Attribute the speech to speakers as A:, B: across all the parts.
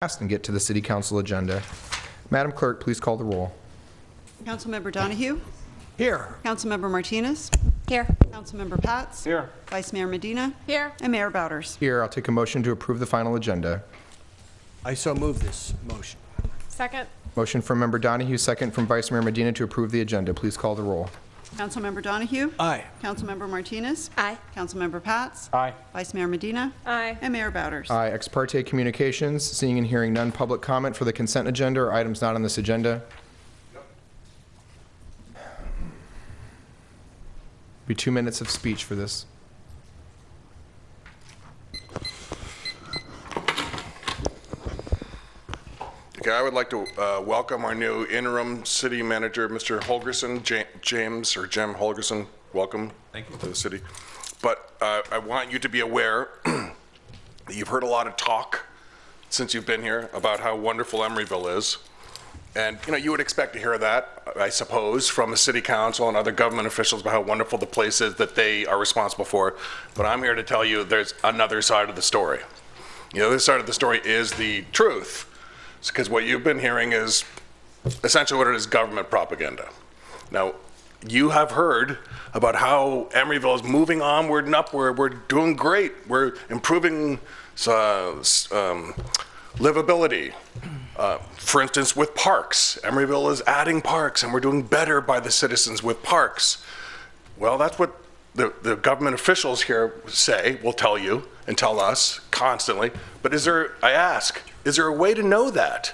A: passed and get to the city council agenda. Madam Clerk, please call the roll.
B: Councilmember Donahue?
C: Here.
B: Councilmember Martinez?
D: Here.
B: Councilmember Pats?
C: Here.
B: Vice Mayor Medina?
D: Here.
B: And Mayor Bowders.
A: Here, I'll take a motion to approve the final agenda.
C: I so move this motion.
D: Second.
A: Motion from Member Donahue, second from Vice Mayor Medina to approve the agenda. Please call the roll.
B: Councilmember Donahue?
C: Aye.
B: Councilmember Martinez?
D: Aye.
B: Councilmember Pats?
C: Aye.
B: Vice Mayor Medina?
D: Aye.
B: And Mayor Bowders.
A: Aye, ex parte communications, seeing and hearing none, public comment for the consent agenda or items not on this agenda. Be two minutes of speech for this.
E: Okay, I would like to uh, welcome our new interim city manager, Mr. Holgerson, Ja- James, or Jim Holgerson. Welcome. Thank you. To the city. But uh, I want you to be aware that you've heard a lot of talk since you've been here about how wonderful Emeryville is. And, you know, you would expect to hear that, I suppose, from the city council and other government officials about how wonderful the place is that they are responsible for. But I'm here to tell you there's another side of the story. You know, this side of the story is the truth, because what you've been hearing is essentially what it is government propaganda. Now, you have heard about how Emeryville is moving onward and upward. We're doing great. We're improving uh, s- um, livability. Uh, for instance, with parks, Emeryville is adding parks, and we're doing better by the citizens with parks. Well, that's what the, the government officials here say, will tell you and tell us constantly. But is there, I ask, is there a way to know that?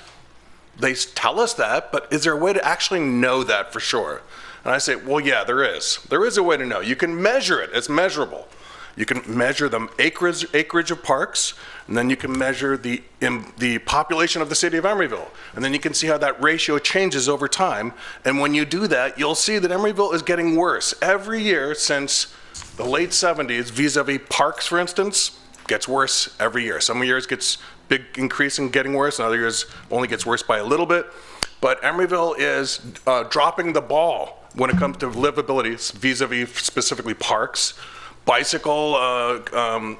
E: They s- tell us that, but is there a way to actually know that for sure? And I say, well, yeah, there is. There is a way to know. You can measure it, it's measurable. You can measure the acreage, acreage of parks, and then you can measure the, in, the population of the city of Emeryville. And then you can see how that ratio changes over time. And when you do that, you'll see that Emeryville is getting worse every year since the late 70s, vis a vis parks, for instance, gets worse every year. Some years gets big increase in getting worse, and other years only gets worse by a little bit. But Emeryville is uh, dropping the ball when it comes to livability, vis-a-vis specifically parks, bicycle uh, um,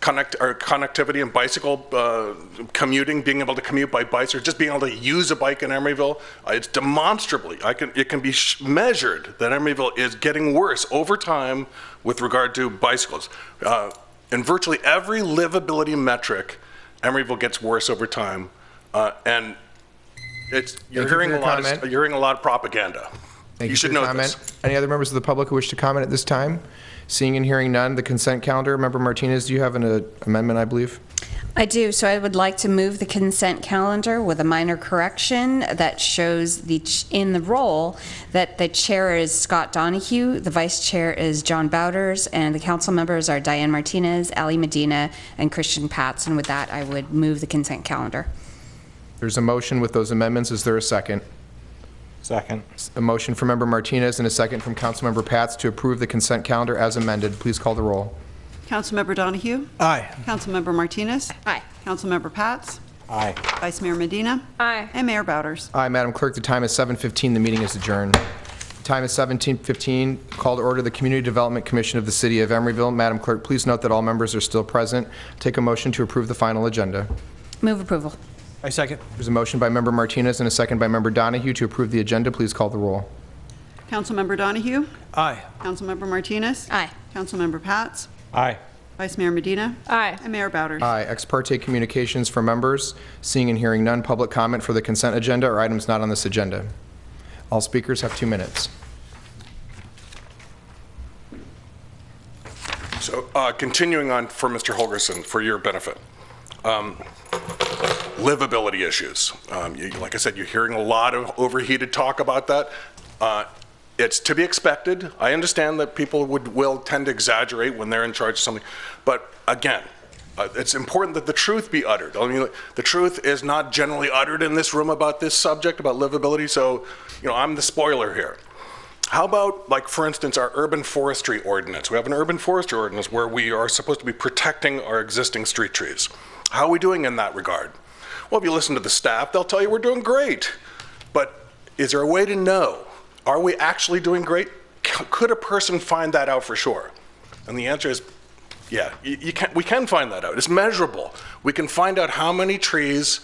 E: connect or connectivity and bicycle uh, commuting, being able to commute by bikes or just being able to use a bike in Emeryville. Uh, it's demonstrably, I can, it can be sh- measured that Emeryville is getting worse over time with regard to bicycles. Uh, in virtually every livability metric, Emeryville gets worse over time, uh, and it's
A: Thank you
E: you're
A: for
E: hearing
A: your
E: a lot. Of,
A: comment.
E: you're hearing a lot of propaganda.
A: Thank you
E: should
A: for your
E: know
A: comment.
E: this.
A: Any other members of the public who wish to comment at this time? Seeing and hearing none, the consent calendar. Member Martinez, do you have an uh, amendment, I believe?
F: I do, so I would like to move the consent calendar with a minor correction that shows the, ch- in the role, that the chair is Scott Donahue, the vice chair is John Bowders, and the council members are Diane Martinez, Ali Medina, and Christian Patz. And with that, I would move the consent calendar.
A: There's a motion with those amendments. Is there a second?
C: Second.
A: A motion from Member Martinez and a second from Councilmember Pats to approve the consent calendar as amended. Please call the roll.
B: Councilmember Donahue?
C: Aye.
B: Councilmember Martinez?
F: Aye.
B: Councilmember Pats?
C: Aye.
B: Vice Mayor Medina?
D: Aye.
B: And Mayor Bowders.
A: Aye, Madam Clerk, the time is 7:15. The meeting is adjourned. Time is 17:15. Call to order the Community Development Commission of the City of Emeryville. Madam Clerk, please note that all members are still present. Take a motion to approve the final agenda.
F: Move approval.
C: I second.
A: There's a motion by Member Martinez and a second by Member Donahue to approve the agenda. Please call the roll.
B: Councilmember Donahue?
C: Aye.
B: Councilmember Martinez?
F: Aye.
B: Councilmember Pats?
C: Aye.
B: Vice Mayor Medina?
D: Aye.
B: And Mayor Bowders.
A: Aye. Ex parte communications for members. Seeing and hearing none. Public comment for the consent agenda or items not on this agenda. All speakers have two minutes.
E: So, uh, continuing on for Mr. Holgerson, for your benefit, um, livability issues. Um, you, like I said, you're hearing a lot of overheated talk about that. Uh, it's to be expected. I understand that people would will tend to exaggerate when they're in charge of something, but again, uh, it's important that the truth be uttered. I mean, the truth is not generally uttered in this room about this subject about livability. So, you know, I'm the spoiler here. How about, like, for instance, our urban forestry ordinance? We have an urban forestry ordinance where we are supposed to be protecting our existing street trees. How are we doing in that regard? Well, if you listen to the staff, they'll tell you we're doing great. But is there a way to know? Are we actually doing great? C- Could a person find that out for sure? And the answer is Yeah, you, you can, we can find that out. It's measurable. We can find out how many trees